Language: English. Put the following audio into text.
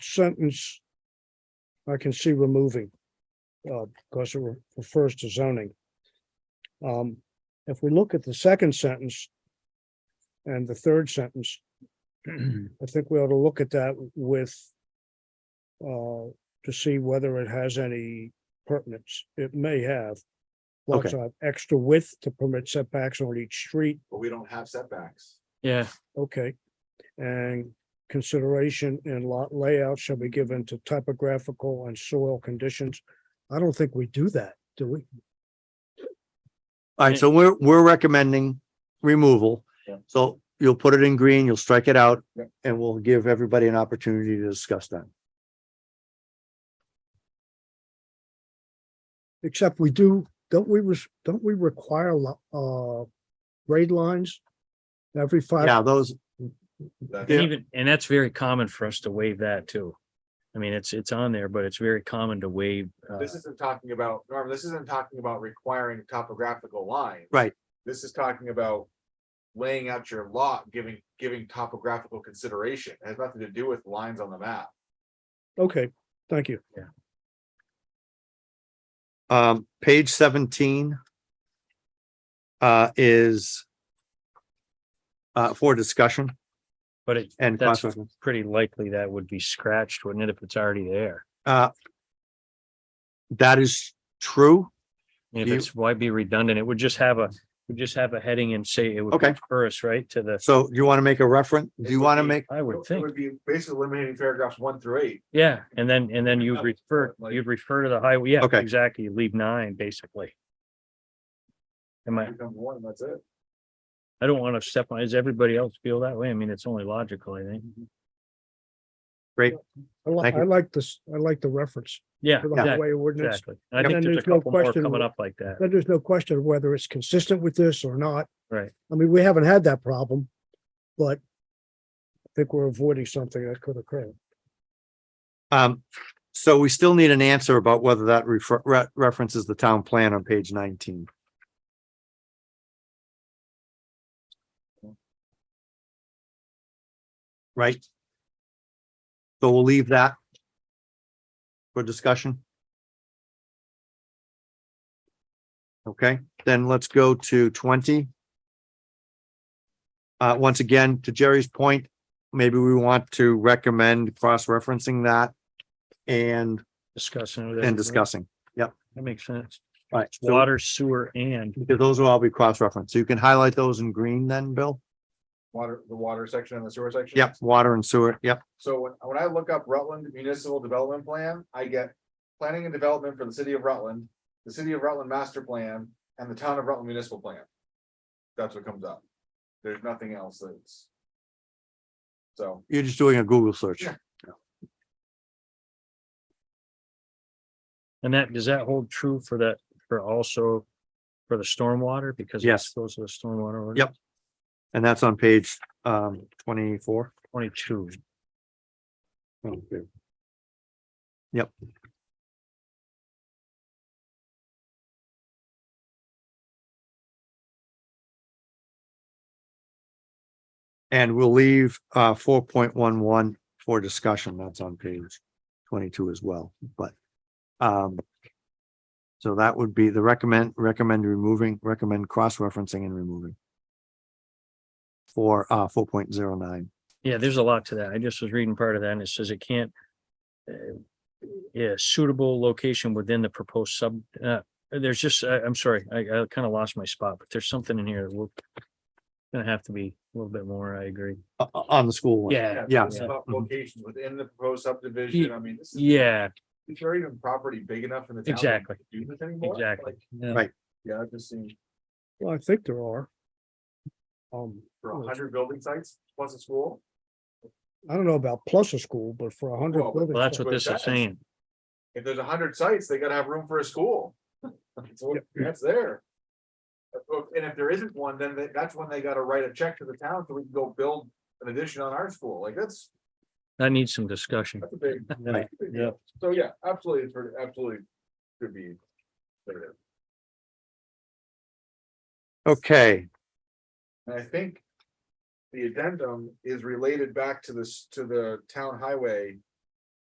sentence I can see removing, uh, because it re- refers to zoning. Um, if we look at the second sentence and the third sentence, I think we ought to look at that with uh, to see whether it has any pertinence. It may have. Lots of extra width to permit setbacks on each street, but we don't have setbacks. Yeah, okay. And consideration in lot layout shall be given to typographical and soil conditions. I don't think we do that, do we? All right, Yeah. so we're, we're recommending removal. Yeah. So you'll put it in green, you'll strike it out, Yeah. and we'll give everybody an opportunity to discuss that. Except we do, don't we, res- don't we require lo- uh grade lines? Every five Yeah, those, That's- and even, and that's very common for us to waive that too. I mean, it's, it's on there, but it's very common to waive. uh, This isn't talking about, Norm, this isn't talking about requiring topographical lines. Right. This is talking about laying out your lot, giving, giving topographical consideration. It has nothing to do with lines on the map. Okay, thank you. um, page seventeen uh, is uh, for discussion But it, and that's consequences. pretty likely that would be scratched, wouldn't it, if it's already there? Uh, that is true. If You- it's, why be redundant? It would just have a, would just have a heading and say it would Okay. refer us right to the, So do you want to make a reference? Do you would want to be- make, I would Oh, It think, would be basically eliminating paragraphs one through eight. yeah, and then, and then you'd refer, Like- you'd refer to the highway, yeah, Okay. exactly, you leave nine, basically. Am I, Become one, and that's it. I don't want to step on, does everybody else feel that way? I mean, it's only logical, I think. I like, Thank you. I like this, I like the reference Yeah, for the exactly, highway ordinance. exactly. And I And think there's a there's no couple more question coming wh- up like that. Then there's no question of whether it's consistent with this or not. Right. I mean, we haven't had that problem, but I think we're avoiding something that could occur. um, so we still need an answer about whether that refer, re- references the town plan on page nineteen. Right? So we'll leave that for discussion. Okay, then let's go to twenty. Uh, once again, to Jerry's point, maybe we want to recommend cross-referencing that and, Discussing. with everybody. and discussing. That makes sense. All right, so- Water, sewer, and, because those will all be cross-referenced. So you can highlight those in green then, Bill? Water, the water section and the sewer section. Yep, water and sewer, yep. So when, when I look up Rutland Municipal Development Plan, I get planning and development for the city of Rutland, the city of Rutland Master Plan, and the town of Rutland Municipal Plan. That's what comes up. There's nothing else that's. So, You're just doing a Google search. Yeah. and that, does that hold true for that, for also for the stormwater? Because Yes. Those are the stormwater. orders? Yep. And that's on page um twenty-four. Twenty-two. Yep. And we'll leave uh four point one one for discussion. That's on page twenty-two as well, but um so that would be the recommend, recommend removing, recommend cross-referencing and removing for uh four point zero nine. Yeah, there's a lot to that. I just was reading part of that and it says it can't. uh, Yeah, suitable location within the proposed sub, uh, there's just, I, I'm sorry, I, I kind of lost my spot, but there's something in here that will. Gonna have to be a little bit more, I agree. Uh, uh, on the school one. Yeah, Mm-hmm. Yeah. This is Yeah. about Mhm. Locations within the proposed subdivision, I mean, this is, yeah, is there even property big enough in the town? to Exactly. Do this anymore? exactly. Like, Yeah. Right. Yeah, I've just seen Well, I think there are. Um, for a hundred building sites plus a school. I don't know about plus a school, but for a hundred. Well, buildings, Well, that's what But this is that's- saying. If there's a hundred sites, they gotta have room for a school. That's what- that's there. And if there isn't one, then that- that's when they gotta write a check to the town so we can go build an addition on our school. Like that's, That needs some discussion. that's a big. Right. Yeah. So yeah, absolutely, it's for- absolutely could be. there. Okay, And I think the addendum is related back to this, to the town highway